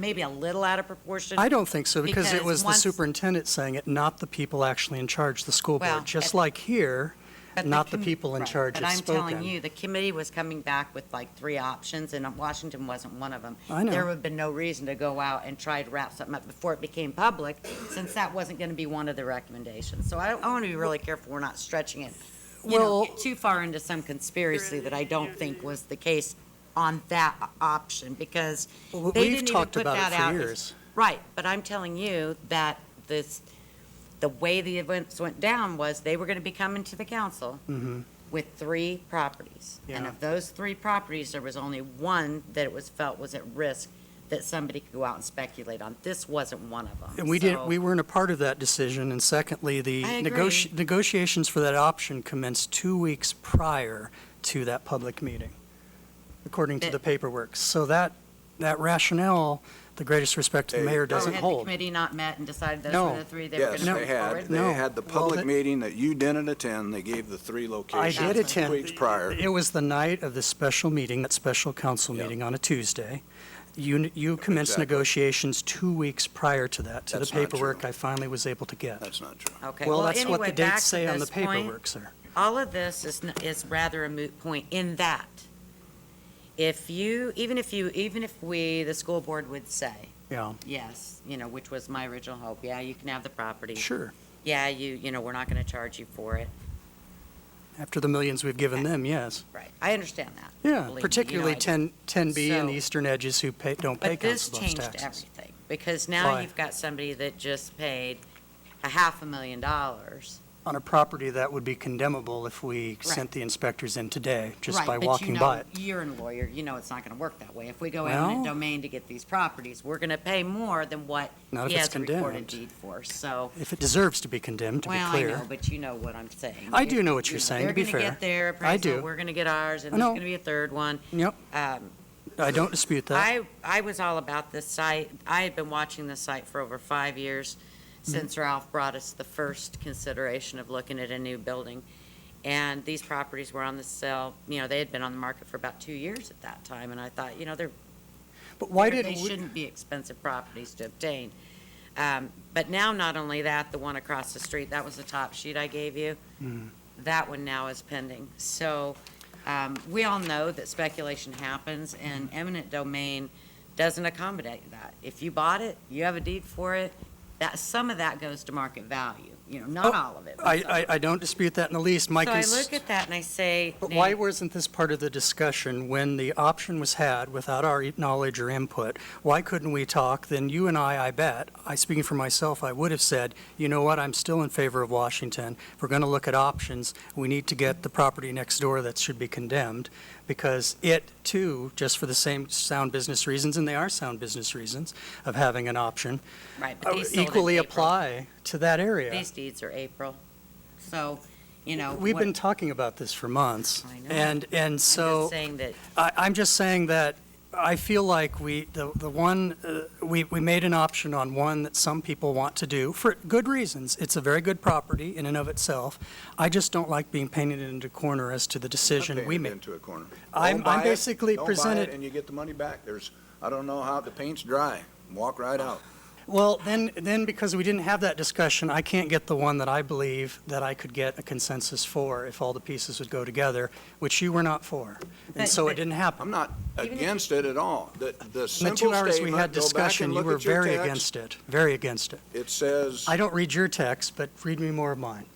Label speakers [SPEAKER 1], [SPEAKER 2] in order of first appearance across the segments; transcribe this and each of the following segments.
[SPEAKER 1] maybe a little out of proportion.
[SPEAKER 2] I don't think so, because it
[SPEAKER 1] Because
[SPEAKER 2] was the
[SPEAKER 1] once-
[SPEAKER 2] superintendent saying it, not the people actually in charge, the school
[SPEAKER 1] Well,
[SPEAKER 2] board. Just
[SPEAKER 1] at-
[SPEAKER 2] like here,
[SPEAKER 1] But
[SPEAKER 2] not the
[SPEAKER 1] com-
[SPEAKER 2] people in
[SPEAKER 1] right,
[SPEAKER 2] charge have
[SPEAKER 1] But I'm telling
[SPEAKER 2] spoken.
[SPEAKER 1] you, the committee was coming back with like three options, and um, Washington wasn't one of them.
[SPEAKER 2] I know.
[SPEAKER 1] There would have been no reason to go out and try to wrap something up before it became public, since that wasn't going to be one of the recommendations. So I, I want to be really careful we're not stretching it, you know,
[SPEAKER 2] Well-
[SPEAKER 1] get too far into some conspiracy that I don't think was the case on that o- option, because
[SPEAKER 2] Well,
[SPEAKER 1] they
[SPEAKER 2] we've
[SPEAKER 1] didn't even
[SPEAKER 2] talked
[SPEAKER 1] put
[SPEAKER 2] about
[SPEAKER 1] that
[SPEAKER 2] it for
[SPEAKER 1] out.
[SPEAKER 2] years.
[SPEAKER 1] Right, but I'm telling you that this, the way the events went down was they were going to be coming to the council
[SPEAKER 2] Mm-hmm.
[SPEAKER 1] with three properties. And
[SPEAKER 2] Yeah.
[SPEAKER 1] of those three properties, there was only one that it was felt was at risk that somebody could go out and speculate on. This wasn't one of them.
[SPEAKER 2] And we
[SPEAKER 1] So-
[SPEAKER 2] didn't, we weren't a part of that decision. And secondly, the
[SPEAKER 1] I
[SPEAKER 2] negoti- negotiations for that option commenced two weeks prior to that public meeting, according to
[SPEAKER 1] But-
[SPEAKER 2] the paperwork. So that, that rationale, the greatest respect to the
[SPEAKER 3] Hey.
[SPEAKER 2] mayor,
[SPEAKER 1] Oh,
[SPEAKER 2] doesn't
[SPEAKER 1] had the
[SPEAKER 2] hold.
[SPEAKER 1] committee not met and decided those
[SPEAKER 2] No.
[SPEAKER 1] were the three they were going
[SPEAKER 3] Yes,
[SPEAKER 1] to
[SPEAKER 3] they
[SPEAKER 1] move
[SPEAKER 3] had.
[SPEAKER 1] forward?
[SPEAKER 3] They
[SPEAKER 2] No.
[SPEAKER 3] had the
[SPEAKER 2] Well,
[SPEAKER 3] public
[SPEAKER 2] that-
[SPEAKER 3] meeting that you didn't attend. They gave the three
[SPEAKER 2] I
[SPEAKER 3] locations.
[SPEAKER 2] did attend.
[SPEAKER 3] Weeks prior.
[SPEAKER 2] It was the night of the special meeting, that special council
[SPEAKER 3] Yeah.
[SPEAKER 2] meeting on a Tuesday. You, you commenced
[SPEAKER 3] Exactly.
[SPEAKER 2] negotiations two weeks prior to that, to the
[SPEAKER 3] That's not true.
[SPEAKER 2] paperwork I finally was able to get.
[SPEAKER 3] That's not true.
[SPEAKER 1] Okay,
[SPEAKER 2] Well,
[SPEAKER 1] well,
[SPEAKER 2] that's what
[SPEAKER 1] anyway,
[SPEAKER 2] the
[SPEAKER 1] back
[SPEAKER 2] dates
[SPEAKER 1] to
[SPEAKER 2] say on the
[SPEAKER 1] this point.
[SPEAKER 2] paperwork, sir.
[SPEAKER 1] all of this is, n- is rather a moot point in that if you, even if you, even if we, the school board would say,
[SPEAKER 2] Yeah,
[SPEAKER 1] yes, you know, which was my original hope, yeah, you can have the property.
[SPEAKER 2] sure.
[SPEAKER 1] Yeah, you, you know, we're not going to charge you for it.
[SPEAKER 2] After the millions we've given them, yes.
[SPEAKER 1] Right. I understand that. Believe me,
[SPEAKER 2] Yeah,
[SPEAKER 1] you know I
[SPEAKER 2] particularly
[SPEAKER 1] do.
[SPEAKER 2] 10, 10B and
[SPEAKER 1] So-
[SPEAKER 2] the eastern edges who pay, don't pay
[SPEAKER 1] But this
[SPEAKER 2] council bluffs
[SPEAKER 1] changed
[SPEAKER 2] taxes.
[SPEAKER 1] everything, because now
[SPEAKER 2] Why?
[SPEAKER 1] you've got somebody that just paid a half a million dollars.
[SPEAKER 2] On a property that would be condemnable if we sent the inspectors in today, just by walking by
[SPEAKER 1] Right,
[SPEAKER 2] it.
[SPEAKER 1] but you know, you're a lawyer, you know it's not going to work that way. If we go eminent
[SPEAKER 2] Well-
[SPEAKER 1] domain to get these properties, we're going to pay more than what
[SPEAKER 2] Not if
[SPEAKER 1] he
[SPEAKER 2] it's
[SPEAKER 1] has a recorded
[SPEAKER 2] condemned.
[SPEAKER 1] deed for, so.
[SPEAKER 2] If it deserves to be condemned, to be
[SPEAKER 1] Well, I
[SPEAKER 2] clear.
[SPEAKER 1] know, but you know what I'm saying.
[SPEAKER 2] I do know what you're saying, to be
[SPEAKER 1] They're going
[SPEAKER 2] fair.
[SPEAKER 1] to get their
[SPEAKER 2] I
[SPEAKER 1] appraisal,
[SPEAKER 2] do.
[SPEAKER 1] we're going to get ours, and
[SPEAKER 2] I
[SPEAKER 1] there's
[SPEAKER 2] know.
[SPEAKER 1] going to be a third one.
[SPEAKER 2] Yep,
[SPEAKER 1] Um,
[SPEAKER 2] I don't dispute that.
[SPEAKER 1] I, I was all about this site. I had been watching this site for over five years since Ralph brought us the first consideration of looking at a new building. And these properties were on the sale, you know, they had been on the market for about two years at that time. And I thought, you know, they're,
[SPEAKER 2] But why didn't
[SPEAKER 1] they
[SPEAKER 2] we?
[SPEAKER 1] shouldn't be expensive properties to obtain. Um, But now, not only that, the one across the street, that was the top sheet I gave you.
[SPEAKER 2] Mm.
[SPEAKER 1] That one now is pending. So um, we all know that speculation happens, and
[SPEAKER 2] Mm-hmm.
[SPEAKER 1] eminent domain doesn't accommodate that. If you bought it, you have a deed for it, that, some of that goes to market value, you know, not
[SPEAKER 2] Oh,
[SPEAKER 1] all of it. but some.
[SPEAKER 2] I, I, I don't dispute that in the least. My
[SPEAKER 1] So I
[SPEAKER 2] cons-
[SPEAKER 1] look at that and I say,
[SPEAKER 2] But
[SPEAKER 1] Nate,
[SPEAKER 2] why wasn't this part of the discussion when the option was had without our e, knowledge or input? Why couldn't we talk? Then you and I, I bet, I, speaking for myself, I would have said, you know what, I'm still in favor of Washington. If We're gonna look at options. We need to get the property next door that should be condemned because it too, just for the same sound business reasons, and they are sound business reasons of having an option,
[SPEAKER 1] right, but
[SPEAKER 2] uh,
[SPEAKER 1] these sold in
[SPEAKER 2] equally
[SPEAKER 1] April.
[SPEAKER 2] apply to that area.
[SPEAKER 1] These deeds are April. So, you know.
[SPEAKER 2] We've
[SPEAKER 1] what-
[SPEAKER 2] been talking about this for months.
[SPEAKER 1] I know.
[SPEAKER 2] And, and
[SPEAKER 1] I'm just
[SPEAKER 2] so,
[SPEAKER 1] Saying that
[SPEAKER 2] I, I'm just saying that I feel like we, the, the one, uh, we, we made an option on one that some people want to do, for good reasons. It's a very good property in and of itself. I just don't like being painted into a corner as to the decision
[SPEAKER 3] Painted
[SPEAKER 2] we made.
[SPEAKER 3] Into a corner.
[SPEAKER 2] I'm-
[SPEAKER 3] Don't buy
[SPEAKER 2] I'm
[SPEAKER 3] it,
[SPEAKER 2] basically
[SPEAKER 3] Don't buy
[SPEAKER 2] presented-
[SPEAKER 3] it and you get the money back. There's, I don't know how, the paint's dry. Walk right out.
[SPEAKER 2] Well, then, then because we didn't have that discussion, I can't get the one that I believe that I could get a consensus for if all the pieces would go together, which you were not for. And
[SPEAKER 1] But-
[SPEAKER 2] so
[SPEAKER 1] but-
[SPEAKER 2] it didn't happen.
[SPEAKER 3] I'm not
[SPEAKER 1] Even if-
[SPEAKER 3] against it at all. The, the
[SPEAKER 2] In the
[SPEAKER 3] simple
[SPEAKER 2] two hours we had
[SPEAKER 3] statement, go back
[SPEAKER 2] discussion,
[SPEAKER 3] and
[SPEAKER 2] you
[SPEAKER 3] look
[SPEAKER 2] were
[SPEAKER 3] at your
[SPEAKER 2] very
[SPEAKER 3] text.
[SPEAKER 2] against it, very against it.
[SPEAKER 3] It says,
[SPEAKER 2] I don't read your text, but read me more of mine.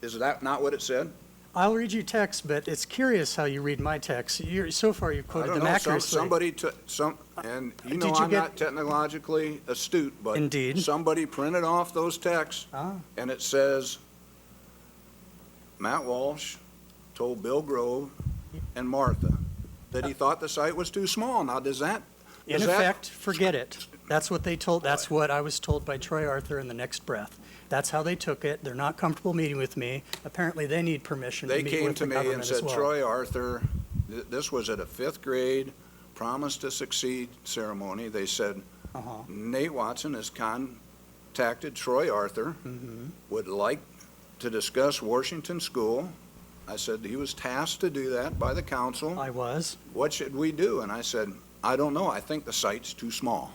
[SPEAKER 3] is that not what it said?
[SPEAKER 2] I'll read you text, but it's curious how you read my text. You're, so far, you've
[SPEAKER 3] I
[SPEAKER 2] quoted
[SPEAKER 3] don't
[SPEAKER 2] them
[SPEAKER 3] know. Some-
[SPEAKER 2] accurately.
[SPEAKER 3] Somebody took, some, and you
[SPEAKER 2] Did
[SPEAKER 3] know,
[SPEAKER 2] you
[SPEAKER 3] I'm
[SPEAKER 2] get-
[SPEAKER 3] not technologically astute, but.
[SPEAKER 2] Indeed.
[SPEAKER 3] Somebody printed off those texts
[SPEAKER 2] Ah.
[SPEAKER 3] and it says, Matt Walsh told Bill Grove and Martha that he thought the site was too small. Now, does that,
[SPEAKER 2] In
[SPEAKER 3] is that-
[SPEAKER 2] effect, forget it. That's what they told, that's what I was told by Troy Arthur in the next breath. That's how they took it. They're not comfortable meeting with me. Apparently, they need permission to
[SPEAKER 3] they
[SPEAKER 2] meet
[SPEAKER 3] came
[SPEAKER 2] with
[SPEAKER 3] to
[SPEAKER 2] the
[SPEAKER 3] me and
[SPEAKER 2] government as
[SPEAKER 3] said,
[SPEAKER 2] well.
[SPEAKER 3] Troy Arthur, th- this was at a fifth grade promise to succeed ceremony. They said,
[SPEAKER 2] Uh-huh.
[SPEAKER 3] Nate Watson has contacted Troy Arthur,
[SPEAKER 2] Mm-hmm.
[SPEAKER 3] would like to discuss Washington School. I said he was tasked to do that by the council.
[SPEAKER 2] I was.
[SPEAKER 3] What should we do? And I said, I don't know. I think the site's too small.